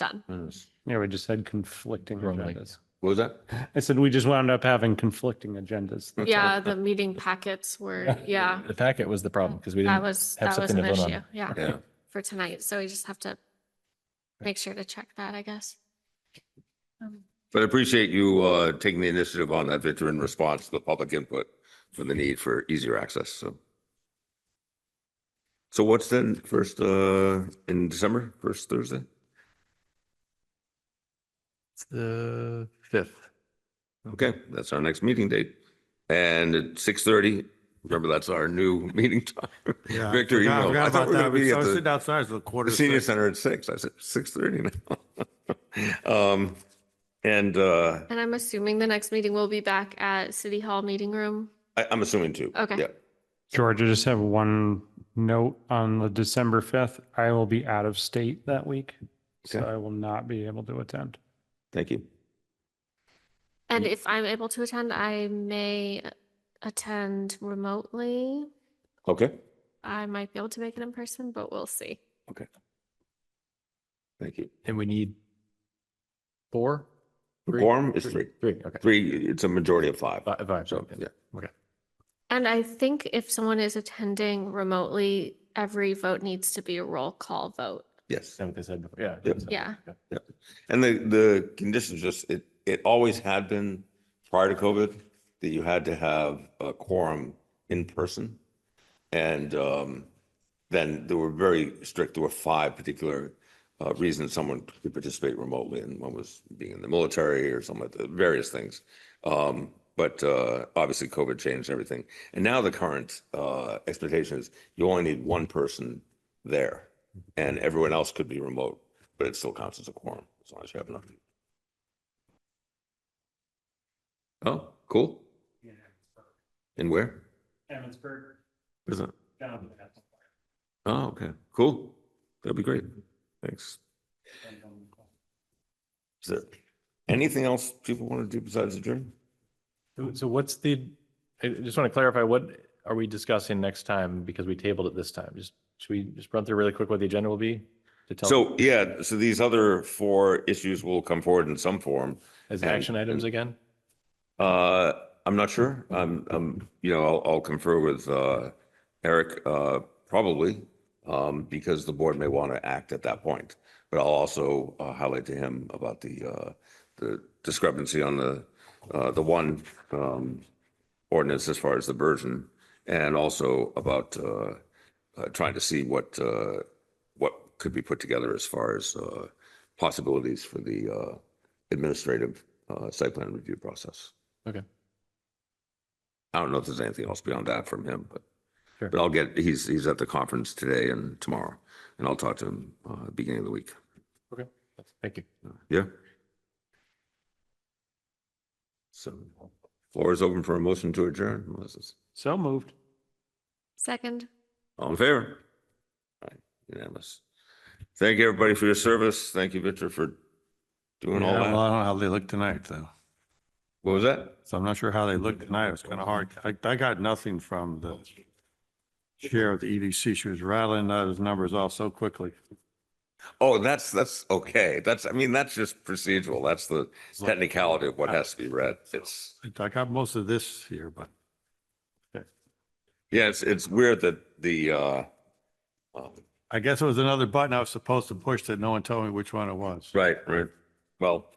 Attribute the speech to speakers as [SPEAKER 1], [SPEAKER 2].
[SPEAKER 1] done.
[SPEAKER 2] Mm.
[SPEAKER 3] Yeah, we just had conflicting
[SPEAKER 4] Wrong link.
[SPEAKER 3] agendas.
[SPEAKER 2] What was that?
[SPEAKER 3] I said we just wound up having conflicting agendas.
[SPEAKER 1] Yeah, the meeting packets were, yeah,
[SPEAKER 4] The packet was the problem because we
[SPEAKER 1] that
[SPEAKER 4] didn't,
[SPEAKER 1] was,
[SPEAKER 4] have
[SPEAKER 1] that was
[SPEAKER 4] something
[SPEAKER 1] an
[SPEAKER 4] to vote on.
[SPEAKER 1] issue. Yeah,
[SPEAKER 2] Yeah.
[SPEAKER 1] for tonight. So we just have to make sure to check that, I guess. Um,
[SPEAKER 2] But I appreciate you uh, taking the initiative on that, Victor, in response to the public input for the need for easier access, so. So what's then, first, uh, in December, first Thursday?
[SPEAKER 4] It's the fifth.
[SPEAKER 2] Okay, that's our next meeting date. And at six thirty, remember, that's our new meeting time.
[SPEAKER 5] Yeah, I
[SPEAKER 2] Victor, you
[SPEAKER 5] forgot- I
[SPEAKER 2] know,
[SPEAKER 5] forgot
[SPEAKER 2] I
[SPEAKER 5] about
[SPEAKER 2] thought we were
[SPEAKER 5] that.
[SPEAKER 2] gonna
[SPEAKER 5] We-
[SPEAKER 2] be
[SPEAKER 5] I
[SPEAKER 2] at
[SPEAKER 5] was
[SPEAKER 2] the.
[SPEAKER 5] sitting outside, it's a quarter.
[SPEAKER 2] The
[SPEAKER 5] to
[SPEAKER 2] senior
[SPEAKER 5] six.
[SPEAKER 2] center at six, I said six thirty now. Um, and, uh,
[SPEAKER 1] And I'm assuming the next meeting will be back at City Hall Meeting Room.
[SPEAKER 2] I, I'm assuming two.
[SPEAKER 1] Okay.
[SPEAKER 2] Yeah.
[SPEAKER 3] George, I just have one note on the December 5th. I will be out of state that week, so
[SPEAKER 2] Okay.
[SPEAKER 3] I will not be able to attend.
[SPEAKER 2] Thank you.
[SPEAKER 1] And if I'm able to attend, I may attend remotely.
[SPEAKER 2] Okay,
[SPEAKER 1] I might be able to make it in person, but we'll see.
[SPEAKER 2] thank you.
[SPEAKER 4] And we need four? Three?
[SPEAKER 2] Quorum is three.
[SPEAKER 4] Three, okay.
[SPEAKER 2] Three, it's a majority of five.
[SPEAKER 4] Fi- Five.
[SPEAKER 2] So, yeah.
[SPEAKER 1] And I think if someone is attending remotely, every vote needs to be a roll call vote.
[SPEAKER 2] Yes.
[SPEAKER 4] That's what they said before, yeah.
[SPEAKER 2] Yep.
[SPEAKER 4] So-
[SPEAKER 1] Yeah.
[SPEAKER 2] And the, the conditions just, it, it always had been prior to COVID that you had to have a quorum in person. And um, then there were very strict, there were five particular uh, reasons someone could participate remotely and one was being in the military or something like that, various things. Um, But uh, obviously COVID changed everything. And now the current uh, expectation is you only need one person there and everyone else could be remote but it still counts as a quorum as long as you have enough. Oh, cool. And where?
[SPEAKER 3] Emmitsburg.
[SPEAKER 2] Is it? Oh, okay, cool. That'd be great. Thanks. Is there anything else people want to do besides adjourn?
[SPEAKER 4] So- So what's the, I I just want to clarify, what are we discussing next time? Because we tabled it this time. Just, should we just run through really quick what the agenda will be? to tell
[SPEAKER 2] So, yeah, so these other four issues will come forward in some form.
[SPEAKER 4] As action items again?
[SPEAKER 2] Uh, I'm not sure. I'm, I'm, you know, I'll, I'll confer with, uh, Eric, uh, probably, um, because the board may want to act at that point. But I'll also uh, highlight to him about the, uh, the discrepancy on the, uh, the one, um, ordinance as far as the version and also about, uh, uh, trying to see what, uh, what could be put together as far as, uh, possibilities for the, uh, administrative, uh, site plan review process.
[SPEAKER 4] Okay.
[SPEAKER 2] I don't know if there's anything else beyond that from him, but,
[SPEAKER 4] Sure.
[SPEAKER 2] but I'll get, he's, he's at the conference today and tomorrow, and I'll talk to him, uh, beginning of the week.
[SPEAKER 4] Thank you.
[SPEAKER 2] Yeah? So floor is open for a motion to adjourn, Melissa's.
[SPEAKER 3] So moved.
[SPEAKER 1] Second.
[SPEAKER 2] All in favor? Aye, Unanimous. Thank you, everybody, for your service. Thank you, Victor, for doing all
[SPEAKER 5] Yeah, well,
[SPEAKER 2] that.
[SPEAKER 5] I don't know how they look tonight, though.
[SPEAKER 2] What was that?
[SPEAKER 5] So I'm not sure how they look tonight. It was kind of hard. I, I got nothing from the chair of the EDC. She was rattling those numbers off so quickly.
[SPEAKER 2] Oh, that's, that's okay. That's, I mean, that's just procedural. That's the technicality of what has to be read. It's,
[SPEAKER 5] I got most of this here, but
[SPEAKER 2] yeah, it's, it's weird that the, uh, um,
[SPEAKER 5] I guess it was another button I was supposed to push that no one told me which one it was.
[SPEAKER 2] right, right. Well,